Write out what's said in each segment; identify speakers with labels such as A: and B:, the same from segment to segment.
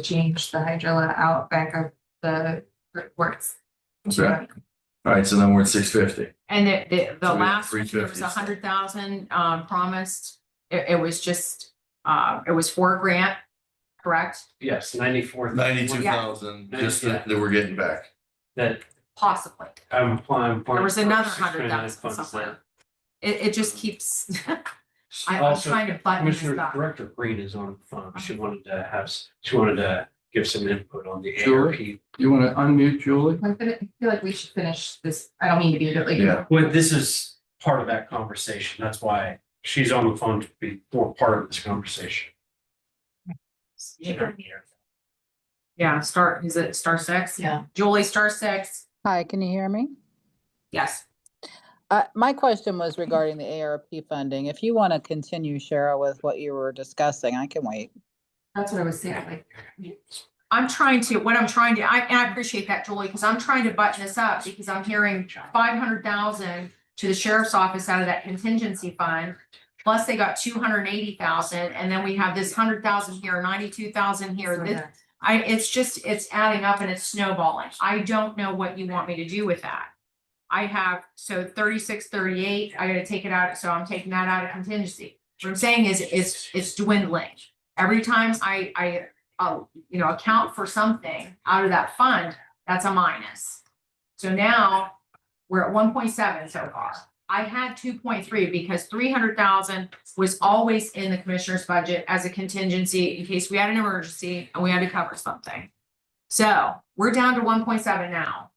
A: change the hydrilla out back of the works.
B: Okay. All right, so then we're at six fifty.
C: And the, the,
B: So
C: the
B: we have
C: last, one, there was
B: 350.
C: a hundred thousand, um, promised. It, it was just, uh, it was for a grant, correct?
D: Yes, ninety-four.
B: Ninety-two thousand, just that, that we're getting back.
D: That
C: Possibly.
D: I'm applying.
C: There was another hundred thousand somewhere. It, it just keeps, I- I'm
D: Also,
C: trying to button this
D: Commissioner
C: up.
D: Director Green is on the phone. She wanted to have, s- she wanted to give some input on the
E: Sure.
D: ARP.
E: You want to unmute Julie?
A: I feel I feel like we should finish this. I don't mean to be, but
B: Yeah.
A: like,
D: Well, this is part of that conversation. That's why she's on the phone to be more part of this conversation.
C: Yeah, star, is it star six?
A: Yeah.
C: Julie, star six,
F: Hi, can you hear me?
C: yes.
F: Uh, my question was regarding the ARP funding. If you want to continue, Cheryl, with what you were discussing, I can wait.
A: that's what I was saying, like.
C: I'm trying to, what I'm trying to, I, and I appreciate that, Julie, because I'm trying to button this up, because I'm hearing five hundred thousand to the sheriff's office out of that contingency fund, plus they got two hundred and eighty thousand, and then we have this hundred thousand here, ninety-two thousand here, this, I, it's just, it's adding up and it's snowballing. I don't know what you want me to do with that. I have, so thirty-six, thirty-eight, I gotta take it out, so I'm taking that out of contingency. What I'm saying is, it's, it's dwindling. Every time I, I, uh, you know, account for something out of that fund, that's a minus. So now, we're at one point seven so far. I had two point three because three hundred thousand was always in the commissioner's budget as a contingency in case we had an emergency and we had to cover something. So we're down to one point seven now.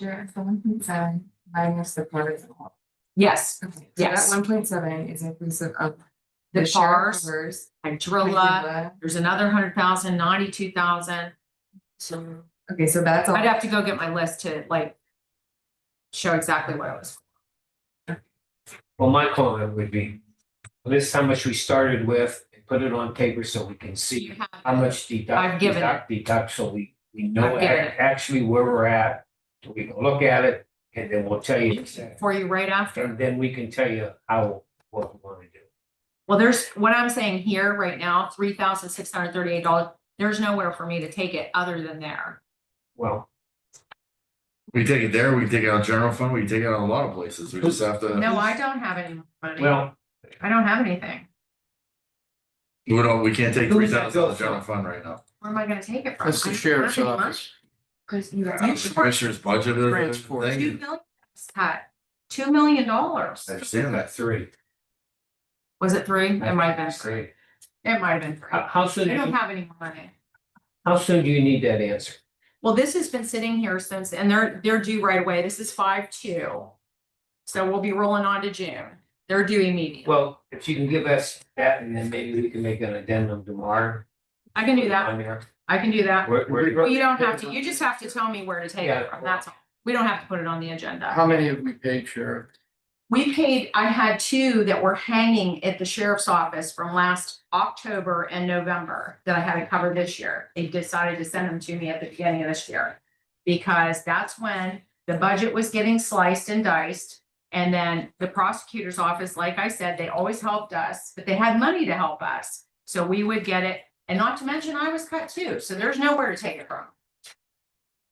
A: Sure, so one point seven minus the part of the whole.
C: Yes,
A: Okay, so
C: Yes.
A: That one point seven is inclusive of.
C: The
A: sheriff's
C: FARs,
A: numbers,
C: hydrilla,
A: hydrilla.
C: there's another hundred thousand, ninety-two thousand. So
A: Okay, so that's all.
C: I'd have to go get my list to like show exactly what it was.
G: Well, my comment would be, list how much we started with, and put it on paper so we can
C: You
G: see
C: have-
G: how much
C: I've
G: deduct,
C: given it.
G: deduct, deduct, so we, we know
C: I've given
G: ac-
C: it.
G: actually where we're at. so We can look at it, and then we'll tell you,
C: For you right after.
G: and then we can tell you how, what we wanna do.
C: Well, there's, what I'm saying here right now, three thousand six hundred thirty-eight dollars, there's nowhere for me to take it other than there.
G: Well,
B: We take it there, we can take it out of general fund, we can take it out of a lot of places. We just have to,
C: No, I don't have any more money.
G: Uh, well,
C: I don't have anything.
B: we don't, we can't take
G: Who
B: three
G: does that
B: thousand out
G: go
B: of
G: for?
B: general fund right now.
C: Where am I gonna take it from?
E: That's the
C: I don't
E: sheriff's
C: have any money.
E: office.
A: Cause you
B: Out of the Commissioner's budget or
E: Transport.
C: Two
B: anything.
C: million, cut, two million dollars,
B: I understand that.
G: three.
C: was it three? It might have been three,
G: Great.
C: it might have been three.
G: How, how soon,
C: I don't
G: do you-
C: have any more money.
G: how soon do you need that answer?
C: Well, this has been sitting here since, and they're, they're due right away, this is five two. So we'll be rolling on to June, they're due immediately,
G: Well, if you can give us that, and then maybe we can make an addendum tomorrow.
C: I can do that,
G: On there.
C: I can do that.
G: Where- where-
C: Well, you don't have to, you just have to tell me where to take it
G: Yeah.
C: from, that's all, we don't have to put it on the agenda.
E: How many have we paid, Sheriff?
C: We paid, I had two that were hanging at the sheriff's office from last October and November that I had to cover this year. They decided to send them to me at the beginning of this year. Because that's when the budget was getting sliced and diced. And then the prosecutor's office, like I said, they always helped us, but they had money to help us. So we would get it, and not to mention I was cut too, so there's nowhere to take it from.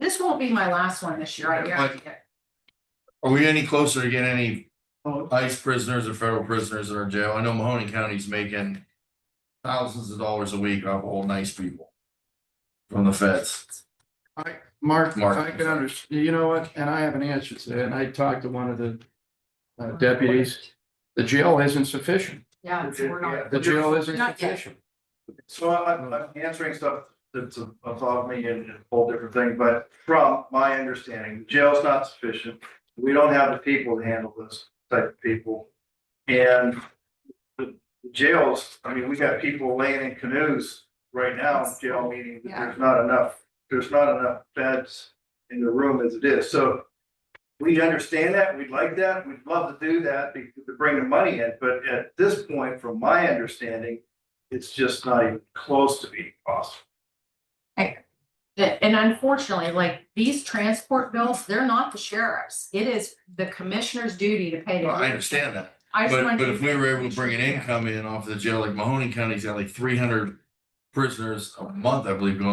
C: This won't be my last one this year, I guarantee it.
B: Are we any closer to getting any ICE prisoners or federal prisoners in our jail? I know Mahoney County's making thousands of dollars a week off old nice people from the feds.
E: I, Mark,
B: Mark.
E: I can under, you know what, and I have an answer to that, and I talked to one of the uh, deputies. The jail isn't sufficient.
C: Yeah, so we're not.
E: The jail isn't
C: Not yet.
E: sufficient.
H: So I'm, I'm answering stuff that's above me and a whole different thing, but from my understanding, the jail's not sufficient. We don't have the people to handle this type of people. And the the jails, I mean, we got people laying in canoes right now, in jail meaning that there's not enough, there's not enough beds in the room as it is, so. We understand that, we'd like that, we'd love to do that, be- to bring the money in, but at this point, from my understanding, it's just not even close to being possible.
C: That, and unfortunately, like these transport bills, they're not the sheriff's. It is the commissioner's duty to pay.
B: Well, I understand that,
C: I just
B: but
C: wanted
B: but
C: to-
B: if we were able to bring an income in off the jail, like Mahoney County's got like three hundred prisoners a month, I believe, going